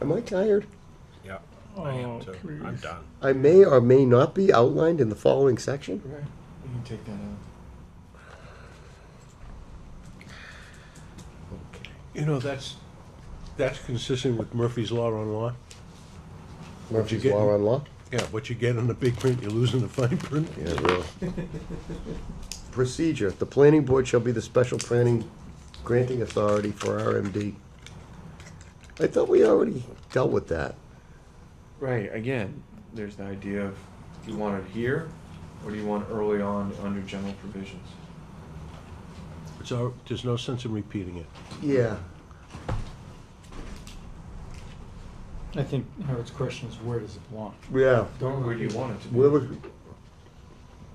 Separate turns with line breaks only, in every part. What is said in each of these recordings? Am I tired?
Yeah, I am
Oh,
too. I'm
please.
done.
I may or may not be outlined in the following section.
Right. You can take that out.
You know, that's, that's consistent with Murphy's Law on law.
Murphy's
get-
Law on Law?
Yeah, what you get in the big print, you lose in the fine print.
Yeah, really. Procedure, the planning board shall be the special planning granting authority for RMD. I thought we already dealt with that.
Right. Again, there's the idea of do you want it here, or do you want early on under general provisions?
So there's no sense in repeating it.
Yeah.
I think Howard's question is where does it belong?
Yeah.
Don't where do you want it to be?
Where was,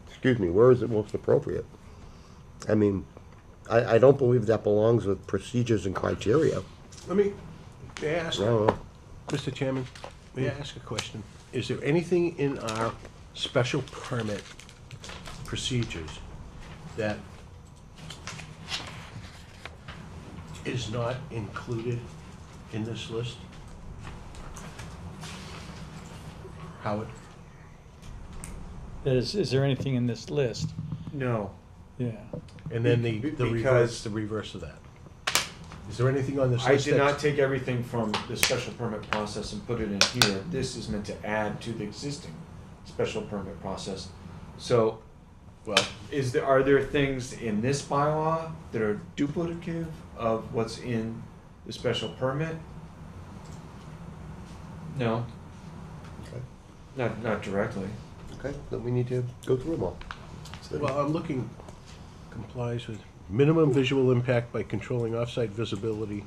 excuse me, where is it most appropriate? I mean, I, I don't believe that belongs with procedures and criteria.
Let me, may I ask,
I don't know.
Mr. Chairman, may I ask a question? Is there anything in our special permit procedures that is not included in this list? Howard?
That is, is there anything in this list?
no.
Yeah.
And then the,
Be-
the
because-
reverse, the reverse of that. Is there anything on this
I
list
did not
that's?
take everything from the special permit process and put it in here. This is meant to add to the existing special permit process. So, well, is there, are there things in this bylaw that are duplicative of what's in the special permit? No, not, not directly.
Okay, then we need to go through them all. So-
Well, I'm looking, complies with minimum visual impact by controlling off-site visibility.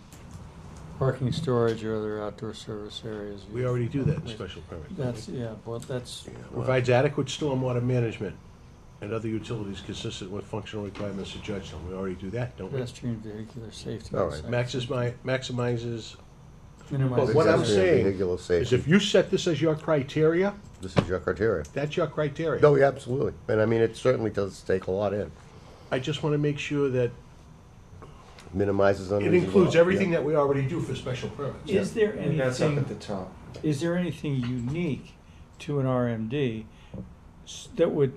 Parking, storage, or other outdoor service areas.
We already do that in special permit.
That's, yeah, well, that's,
Provides adequate stormwater management and other utilities consistent with functional requirements of Judgetown. We already do that, don't we?
pedestrian vehicular safety.
All right.
and
Maximi- Maximizes,
Minimize.
But what I'm
Pedestrian
saying
vehicular
is
safety.
if you set this as your criteria,
This is your criteria.
that's your criteria.
No, yeah, absolutely. And I mean, it certainly does take a lot in.
I just want to make sure that
Minimizes
it
unreasonable.
includes everything
yeah.
that we already do for special permits.
Is there
And that's up at
anything,
the top.
is there anything unique to an RMD s- that would,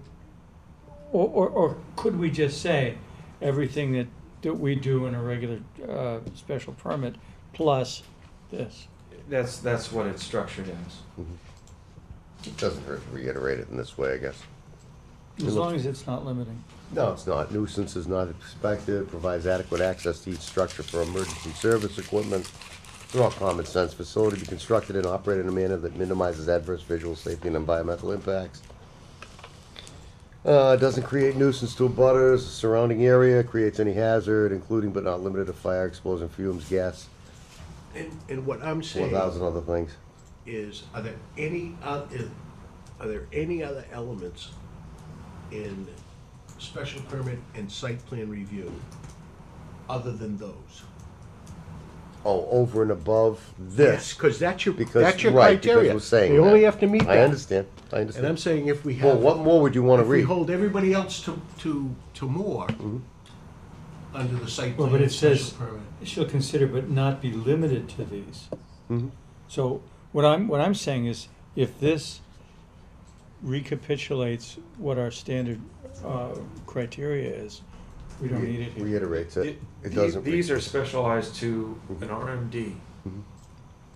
or, or, or could we just say everything that, that we do in a regular, uh, special permit plus this?
That's, that's what it's structured as.
It Doesn't hurt to reiterate it in this way, I guess.
As long as it's not limiting.
No, it's not. Nuisance is not expected, provides adequate access to each structure for emergency service equipment. They're all common sense. Facility to be constructed and operated in a manner that minimizes adverse visual, safety, and environmental impacts. Uh, doesn't create nuisance to abutters, surrounding area, creates any hazard, including but not limited to fire, explosion, fumes, gas,
And, and what I'm
one
saying
thousand other things.
is, are there any, oth- are there any other elements in special permit and site plan review other than those?
Oh, over and above this.
Because that's your,
Because,
that's your
right, because
criteria.
we're saying
They only
that.
have to meet
I
that.
understand, I
And I'm
understand.
saying if we
Well,
have,
what more would you wanna
if we
read? Mm-hmm.
hold everybody else to, to, to more under the site
Well,
plan
but
and
it says-
special permit.
Shall consider but not be limited to these.
Mhm.
So what I'm, what I'm saying is, if this recapitulates what our standard uh, criteria is, we don't need it here.
Reiterates it. It
The-
doesn't. Mm-hmm. re-
These are specialized to an RMD.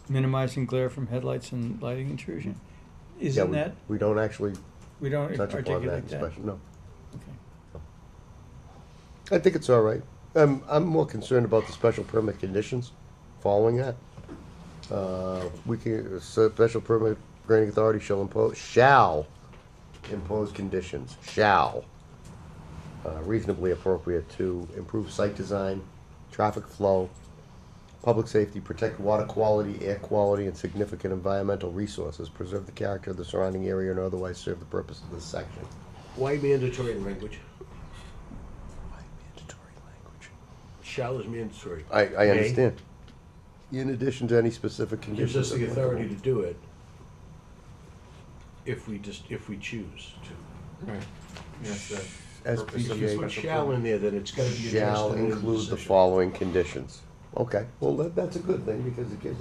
Minimizing glare from headlights and lighting intrusion.
Yeah,
Isn't
we-
that,
We don't actually
we don't
touch upon that in
articulate that?
special, no.
Okay.
I think it's all right. I'm, I'm more concerned about the special permit conditions following that. Uh, we can, so special permit granting authority shall impose, shall impose conditions, shall. Uh, reasonably appropriate to improve site design, traffic flow, public safety, protect water quality, air quality, and significant environmental resources, preserve the character of the surrounding area and otherwise serve the purpose of this section.
Why mandatory language?
Mandatory language.
Shall is mandatory.
I, I
May.
understand. In addition to any specific conditions.
Gives us the
applicable.
authority to do it if we just, if we choose to.
Right. Yes, that-
If you put
SPGA
shall in there, then it's gotta be addressed
shall
in the
include the
decision.
following conditions. Okay, well, that, that's a good thing, because it gives